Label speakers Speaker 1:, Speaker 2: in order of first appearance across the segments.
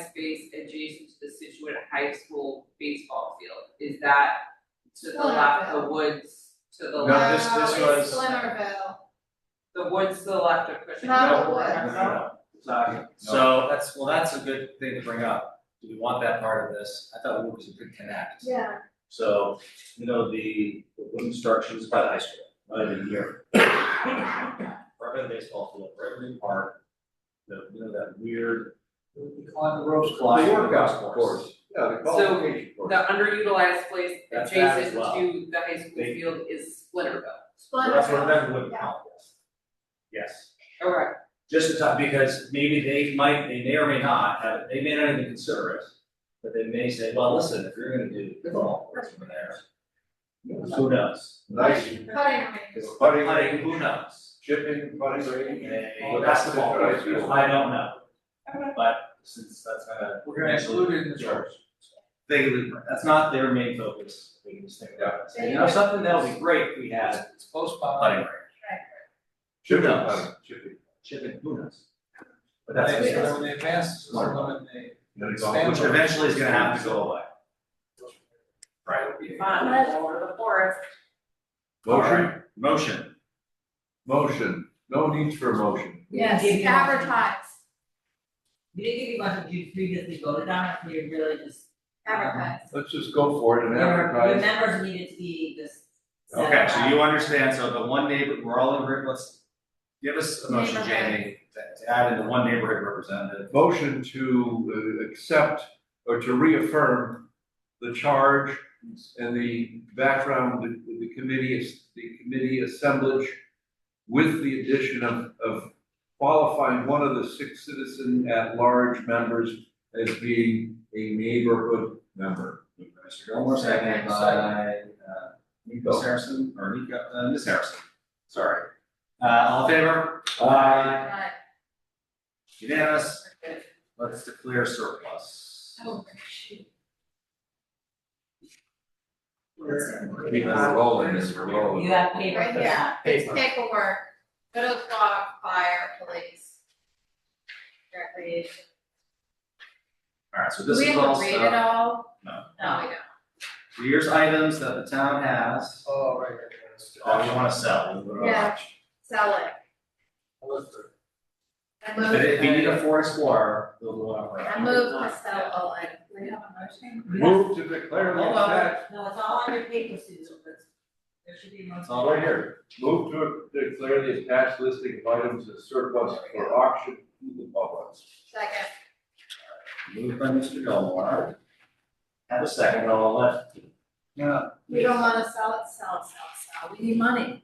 Speaker 1: space adjacent to the Situate High School baseball field, is that to the
Speaker 2: Well,
Speaker 1: left, the
Speaker 2: no.
Speaker 1: woods to the
Speaker 3: No,
Speaker 1: left,
Speaker 3: this- this
Speaker 2: No, it's
Speaker 3: was-
Speaker 2: Splinterville.
Speaker 1: the woods to the left of Cushing Hill?
Speaker 2: Not the
Speaker 3: No, no, no.
Speaker 4: Sorry. So that's, well, that's a good thing to bring up. Do we want that part of this? I thought Wood was a good connect.
Speaker 2: Yeah.
Speaker 3: So, you know, the, the wooden structures by the high school, right in here. Right by the baseball field, right in the park, the, you know, that weird. On the rose. Flying
Speaker 5: The
Speaker 3: rose
Speaker 5: workout
Speaker 3: course.
Speaker 5: course, yeah, the
Speaker 1: So,
Speaker 5: qualification course.
Speaker 1: The underutilized place
Speaker 3: That's that as
Speaker 1: adjacent
Speaker 3: well.
Speaker 1: to the high school
Speaker 3: They-
Speaker 1: field is Splinterville,
Speaker 2: Splinterville.
Speaker 3: That's what that would
Speaker 2: yeah.
Speaker 3: count as. Yes.
Speaker 1: alright,
Speaker 3: just to top, because maybe they might, they may or may not have, they may not even consider it. But they may say, well, listen, if you're gonna do pickleball courts over there, who knows?
Speaker 5: Nice,
Speaker 2: Cutting rings.
Speaker 5: it's putting,
Speaker 3: Hunting,
Speaker 5: green,
Speaker 3: who knows?
Speaker 5: chipping, putting, green.
Speaker 3: Hey,
Speaker 5: Well, that's the
Speaker 3: basketball,
Speaker 5: right field.
Speaker 3: I don't know.
Speaker 1: Okay.
Speaker 3: But since that's not a.
Speaker 5: We're gonna include it in the charts.
Speaker 3: They, that's not their main focus, we can just think about it. So, You know, something that'll be great if we had
Speaker 5: It's close by.
Speaker 3: putting rink,
Speaker 5: Chipping,
Speaker 3: knows?
Speaker 5: putting, chipping.
Speaker 3: chipping, who knows? But
Speaker 5: That's
Speaker 3: that's,
Speaker 5: what
Speaker 3: which
Speaker 5: they advance, so
Speaker 3: Smart.
Speaker 5: when they.
Speaker 4: No, it's
Speaker 5: expand it.
Speaker 3: eventually is gonna have to go away. Right?
Speaker 1: fine, over the forest.
Speaker 5: Motion,
Speaker 3: Motion.
Speaker 5: motion, no need for a motion.
Speaker 2: Yes,
Speaker 6: Give you-
Speaker 2: advertise,
Speaker 6: We didn't give you much that you previously voted on, we really just.
Speaker 2: advertise.
Speaker 5: Let's just go for it and
Speaker 6: Your
Speaker 5: advertise.
Speaker 6: members needed to be just. set
Speaker 3: Okay, so
Speaker 6: aside.
Speaker 3: you understand, so the one neighbor, we're all in, agreement, let's, give us a motion,
Speaker 2: Neighborhood.
Speaker 3: Jamie, to to add in the one neighborhood representative.
Speaker 5: Motion to uh, accept or to reaffirm the charge and the background, the, the committee, is- the committee assemblage with the addition of, of qualifying one of the six citizen at-large members as being a neighborhood member.
Speaker 3: Mr. Gilmore, seconded by, uh, Nico Harrison, or Nico, uh, Ms. Harrison, sorry. Uh, all in favor? Aye.
Speaker 2: Right.
Speaker 3: Unanimous, let's declare surplus.
Speaker 2: Oh, shoot.
Speaker 5: We're rolling this, we're rolling.
Speaker 6: You have paper.
Speaker 2: Right here, it's paperwork, go to clock, fire, police. Recreation.
Speaker 3: Alright, so
Speaker 2: Do
Speaker 3: this
Speaker 2: we
Speaker 3: is
Speaker 2: have
Speaker 3: all
Speaker 2: to read it
Speaker 3: stuff,
Speaker 2: all?
Speaker 3: No.
Speaker 2: No, we don't.
Speaker 3: here's items that the town has,
Speaker 5: Oh, right.
Speaker 3: oh, you wanna sell, we'll go to
Speaker 2: Yeah.
Speaker 3: auction.
Speaker 2: Sell it. I move.
Speaker 3: But if you need a Ford Explorer, we'll go out right.
Speaker 2: I move to sell all items. Do we have a motion?
Speaker 5: Move to declare the
Speaker 3: Hold on.
Speaker 5: attached,
Speaker 6: No, it's all on your paper, Susan, but there should be one.
Speaker 3: It's all right here.
Speaker 5: move to declare the attached listing of items as surplus for auction to the public.
Speaker 2: Second.
Speaker 3: Moved by Mr. Gilmore. Have a second, I'll let.
Speaker 5: Yeah.
Speaker 2: We don't wanna sell it, sell it, sell it, sell it. We need money.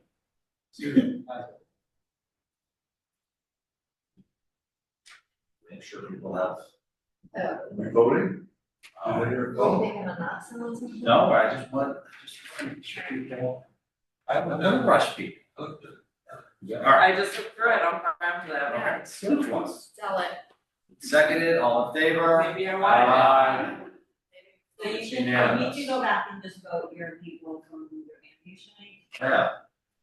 Speaker 3: Make sure people have.
Speaker 2: So,
Speaker 5: We voting?
Speaker 3: Uh,
Speaker 2: are
Speaker 5: Oh.
Speaker 2: you thinking of not selling something?
Speaker 3: No, I just want, I just want to make sure people.
Speaker 5: I
Speaker 3: I'm gonna rush people. All right,
Speaker 1: I just looked through it, I'm fine with
Speaker 3: all
Speaker 1: that,
Speaker 3: right, so which ones?
Speaker 2: Sell it.
Speaker 3: Seconded, all in favor?
Speaker 1: maybe I
Speaker 3: Uh,
Speaker 1: want
Speaker 3: Aye.
Speaker 6: So you should,
Speaker 3: Unanimous.
Speaker 6: we should go back and just vote your people from your hand, usually.
Speaker 3: Yeah,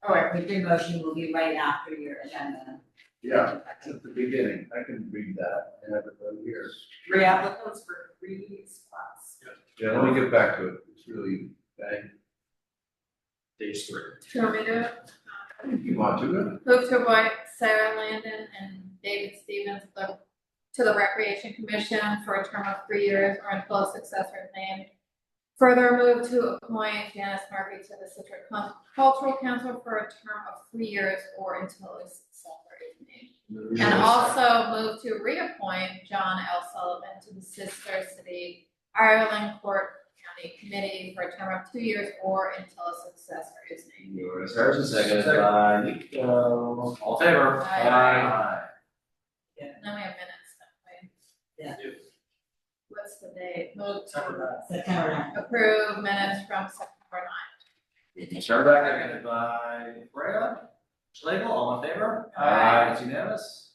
Speaker 6: All right, but your motion will be right after your agenda.
Speaker 5: Yeah, it's at the beginning, I can read that, I have it right here.
Speaker 1: three applicants for three spots.
Speaker 5: Yeah, let me get back to it, it's really, bang.
Speaker 3: page three.
Speaker 2: Do you want me to do it?
Speaker 5: you want to,
Speaker 2: Move to appoint Sarah Landon and David Stevens to the- to the Recreation Commission for a term of three years or until a successor is named. Further move to appoint Janice Murphy to the Citrus Cul- Cultural Council for a term of three years or until a successor is named. And also move to reappoint John L. Sullivan to the Sister City Ireland Court County Committee for a term of two years or until a successor is named.
Speaker 3: Yours, Harrison, seconded by Nico. All in favor?
Speaker 2: Aye.
Speaker 3: Aye.
Speaker 2: Now we have minutes, don't we?
Speaker 6: Yeah.
Speaker 2: What's the date? Move to
Speaker 3: September
Speaker 6: September ninth.
Speaker 2: approve minutes from September ninth.
Speaker 3: Sherbak, seconded by Correa. Schlegel, all in favor?
Speaker 2: Aye.
Speaker 3: It's unanimous.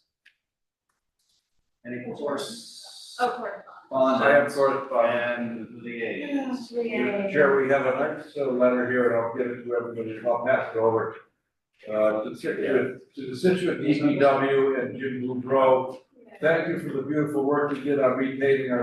Speaker 3: Any course?
Speaker 2: Oh, correspondence.
Speaker 3: Bond.
Speaker 5: I have correspondence.
Speaker 3: And the A's.
Speaker 5: uh, Chair, we have a nice uh, letter here, and I'll give it to everybody, I'll pass it over. Uh, to the Situate, to the Situate DPW and Jim Boudreau, Thank you for the beautiful work you did on repaving our